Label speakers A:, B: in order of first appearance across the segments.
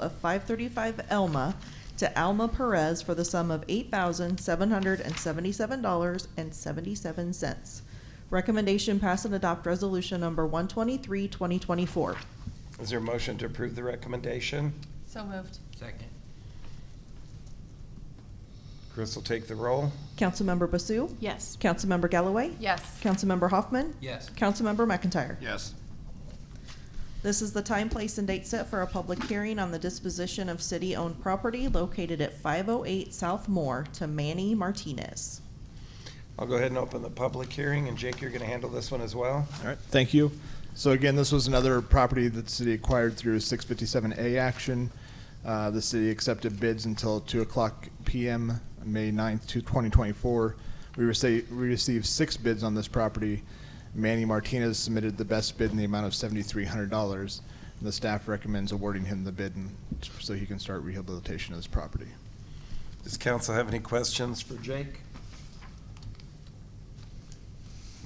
A: of 535 Elma to Alma Perez for the sum of $8,777.77. Recommendation pass and adopt resolution number 123, 2024.
B: Is there a motion to approve the recommendation?
C: So moved.
D: Second.
B: Chris will take the roll.
A: Councilmember Basu?
C: Yes.
A: Councilmember Galloway?
C: Yes.
A: Councilmember Hoffman?
D: Yes.
A: Councilmember McIntyre?
B: Yes.
A: This is the time, place, and date set for a public hearing on the disposition of city-owned property located at 508 South Moore to Manny Martinez.
B: I'll go ahead and open the public hearing, and Jake, you're going to handle this one as well?
E: All right, thank you. So again, this was another property that the city acquired through a 657A action. Uh, The city accepted bids until 2 o'clock PM, May 9th, to 2024. We received, we received six bids on this property. Manny Martinez submitted the best bid in the amount of $7,300. And The staff recommends awarding him the bid and- so he can start rehabilitation of this property.
B: Does council have any questions for Jake?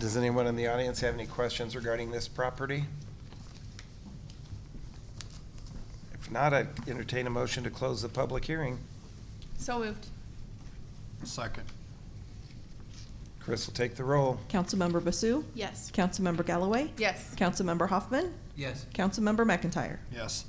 B: Does anyone in the audience have any questions regarding this property? If not, I'd entertain a motion to close the public hearing.
C: So moved.
F: Second.
B: Chris will take the roll.
A: Councilmember Basu?
C: Yes.
A: Councilmember Galloway?
C: Yes.
A: Councilmember Hoffman?
D: Yes.
A: Councilmember McIntyre?
F: Yes.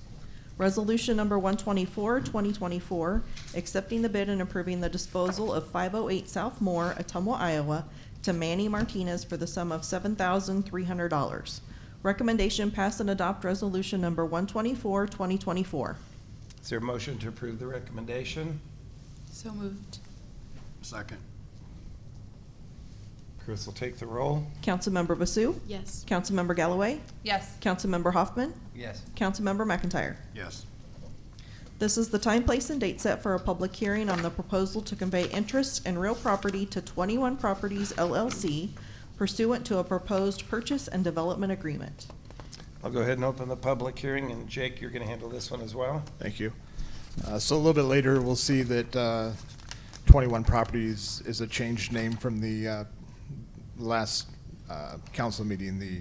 A: Resolution number 124, 2024, accepting the bid and approving the disposal of 508 South Moore, Atumwa, Iowa, to Manny Martinez for the sum of $7,300. Recommendation pass and adopt resolution number 124, 2024.
B: Is there a motion to approve the recommendation?
C: So moved.
F: Second.
B: Chris will take the roll.
A: Councilmember Basu?
C: Yes.
A: Councilmember Galloway?
C: Yes.
A: Councilmember Hoffman?
D: Yes.
A: Councilmember McIntyre?
F: Yes.
A: This is the time, place, and date set for a public hearing on the proposal to convey interest in real property to 21 Properties LLC pursuant to a proposed purchase and development agreement.
B: I'll go ahead and open the public hearing, and Jake, you're going to handle this one as well?
E: Thank you. Uh, So a little bit later, we'll see that uh, 21 Properties is a changed name from the uh, last uh, council meeting, the,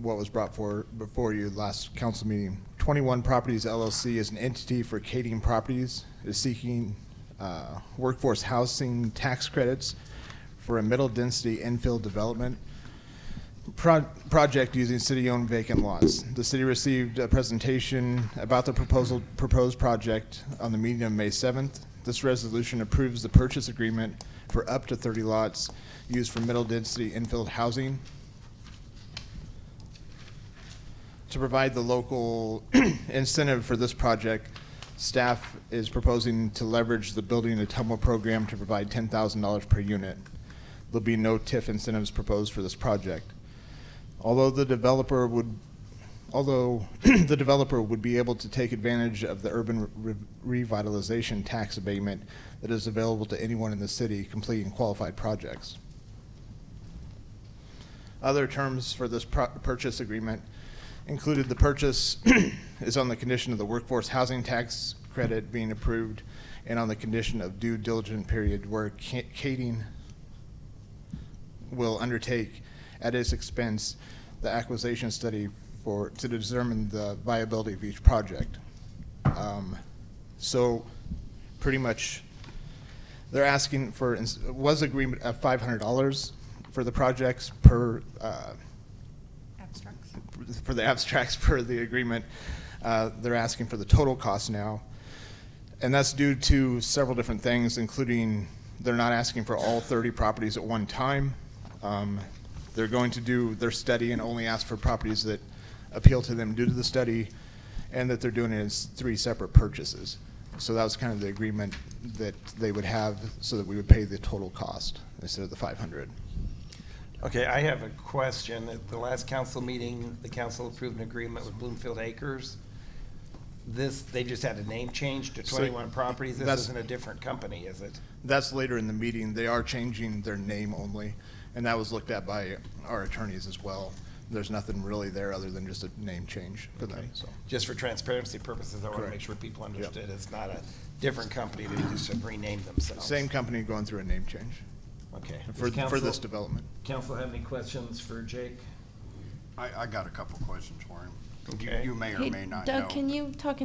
E: what was brought for, before you last council meeting. 21 Properties LLC is an entity for Kading Properties, is seeking uh, workforce housing tax credits for a middle-density infill development pro- project using city-owned vacant lots. The city received a presentation about the proposal, proposed project on the meeting of May 7th. This resolution approves the purchase agreement for up to 30 lots used for middle-density infill housing to provide the local incentive for this project, staff is proposing to leverage the Building Atumwa program to provide ten thousand dollars per unit. There'll be no TIF incentives proposed for this project. Although the developer would, although the developer would be able to take advantage of the urban re- revitalization tax abatement that is available to anyone in the city completing qualified projects. Other terms for this pro- purchase agreement included the purchase is on the condition of the workforce housing tax credit being approved and on the condition of due diligent period where ca- Kading will undertake at its expense the acquisition study for, to determine the viability of each project. Um, So pretty much they're asking for, ins- was agreement of five hundred dollars for the projects per, uh,
C: Abstracts.
E: for the abstracts per the agreement. Uh, They're asking for the total cost now. And that's due to several different things, including they're not asking for all 30 properties at one time. Um, They're going to do their study and only ask for properties that appeal to them due to the study, and that they're doing it as three separate purchases. So that was kind of the agreement that they would have, so that we would pay the total cost instead of the 500.
B: Okay, I have a question. At the last council meeting, the council approved an agreement with Bloomfield Acres. This, they just had a name change to
E: So,
B: 21 properties. This
E: that's-
B: isn't a different company, is it?
E: That's later in the meeting. They are changing their name only, and that was looked at by our attorneys as well. There's nothing really there other than just a name change for them, so.
B: Just for transparency purposes, I want to make
E: Correct.
B: sure people understood it's not a different company. They just have renamed themselves.
E: Same company going through a name change
B: Okay.
E: for,
B: Does
E: for this
B: council-
E: development.
B: Council have any questions for Jake?
F: I, I got a couple questions for him. You-
B: Okay.
F: You may or
D: Hey,
F: may not know.
D: Doug, can you talk